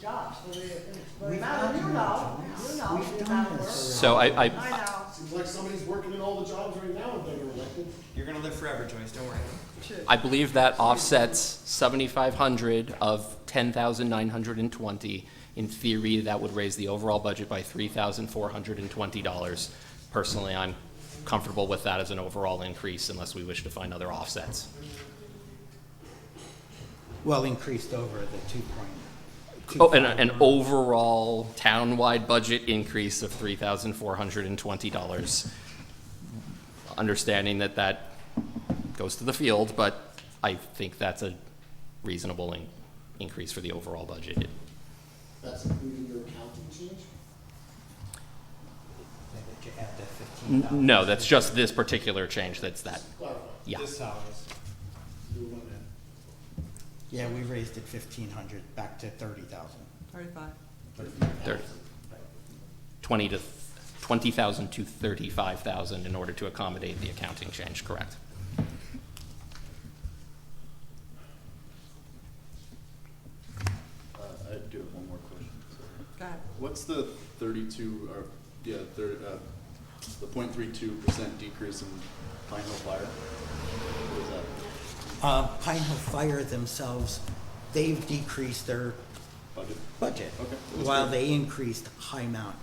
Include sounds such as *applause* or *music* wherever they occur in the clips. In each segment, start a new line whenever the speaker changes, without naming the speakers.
jobs. The amount of, you know, you know, the amount of work.
So I,
I
I,
know,
Seems like somebody's working in all the jobs right now if they were elected.
You're gonna live forever, Joyce, don't worry.
true.
I believe that offsets seventy-five hundred of ten thousand nine hundred and twenty. In theory, that would raise the overall budget by three thousand four hundred and twenty dollars. Personally, I'm comfortable with that as an overall increase unless we wish to find other offsets.
Well, increased over the two point.
Oh, and an overall town-wide budget increase of three thousand four hundred and twenty dollars. Understanding that that goes to the field, but I think that's a reasonable in- increase for the overall budget.
That's including your accounting change.
That you add the fifteen
N-
dollars.
No, that's just this particular change, that's that,
Clarify.
yeah.
This salaries.
Do one then.
Yeah, we raised it fifteen hundred back to thirty thousand.
Thirty-five.
Thirty. Twenty to, twenty thousand to thirty-five thousand in order to accommodate the accounting change, correct?
Uh, I do have one more question. sorry.
Go ahead.
What's the thirty-two, or, yeah, thir uh, the point three-two percent decrease in Pine Hill Fire? What is that,
Uh, Pine Hill Fire themselves, they've decreased their
budget?
budget.
Okay.
While they increased High Mount,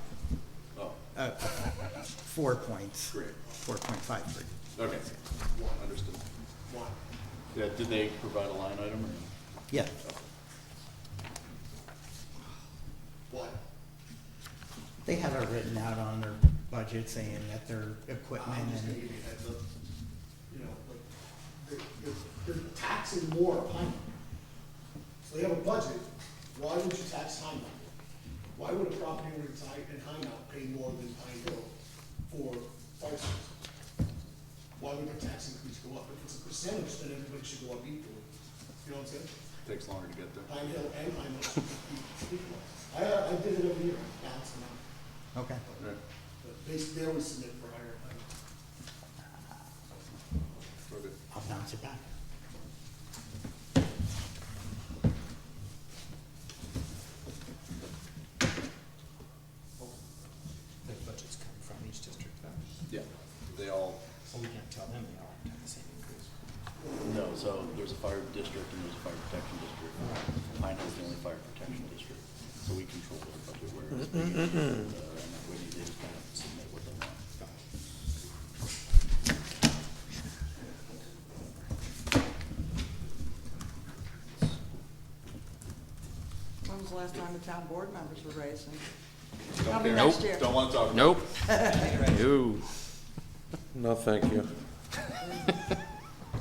Oh,
uh, four points.
Great.
Four point five three.
okay, understood.
Why?
Yeah, did they provide a line item or? no?
Yeah,
Why?
they have it written out on their budget saying that their equipment
I'm just gonna
and,
give you a heads up, you know, like, they're, they're, they're taxing more on Pine. So they have a budget, why would you tax Pine? Why would a property owner in Pine, in Pine Hill pay more than Pine Hill for fire service? Why would the tax increase go up? If it's a percentage, then everybody should go up equally, you know what I'm saying?
Takes longer to get there.
Pine Hill and Pine Hill should be equal. I, uh, I did it every year, balance them out,
okay.
Right,
but they, they always submit for higher, Pine Hill.
okay.
I'll bounce it back.
The budgets come from each district though,
Yeah, they all,
so we can't tell them they all have the same increase.
no, so there's a fire district and there's a fire protection district. Pine Hill's the only fire protection district, so we control their budget, whereas they, uh, and that way they just kind of submit what they want.
When was the last time the town board members were raised? And
Don't
Probably
care.
next year.
Don't wanna talk about it.
Nope. No.
No, thank you.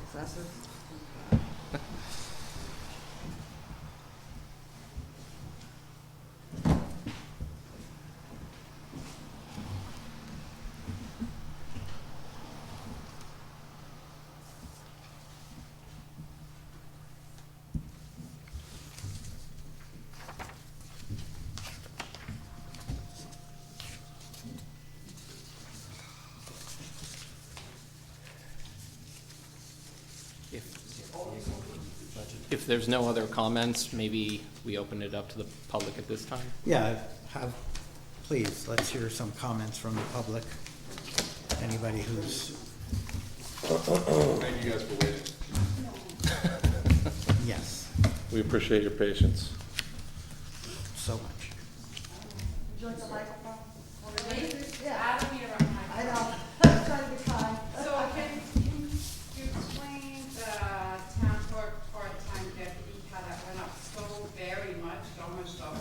Excessive.
If there's no other comments, maybe we open it up to the public at this time?
Yeah, have, please, let's hear some comments from the public. Anybody who's,
Thank you guys for waiting.
yes,
We appreciate your patience.
so much.
Would you like the microphone?
Me?
Yeah,
I don't need a rubber
I
mic.
know. *laughs* I'm trying to be kind.
So can, can you explain the town clerk part-time deputy, how that went up so very much, almost double?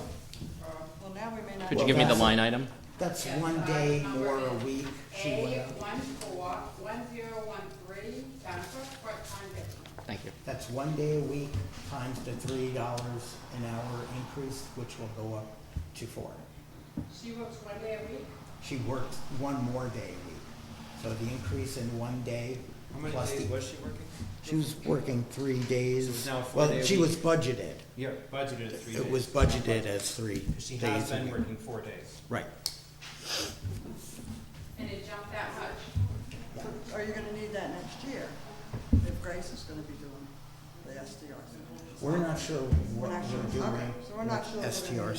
Or
Well, now we may not.
Could you give me the
that's-
line item?
That's
Yes,
one
I
day
remember
or a
it.
week she went
A
up.
one four, one zero one three, town clerk part-time deputy.
Thank you.
That's one day a week times the three dollars an hour increase, which will go up to four.
She works one day a week?
She worked one more day a week. So the increase in one day
How many
plus
days
the,
was she working?
she was working three days.
So it's now a four day
Well,
a
she was
week.
budgeted.
Yeah, budgeted at three days.
It was budgeted as three
She
days
has
a
been
week.
working four days.
Right.
And it jumped that much?
So Are you gonna need that next year? If Grace is gonna be doing the SDRs?
We're not sure what
We're not sure.
we're doing.
Okay, so we're not sure what we're gonna
with
do.
STRs.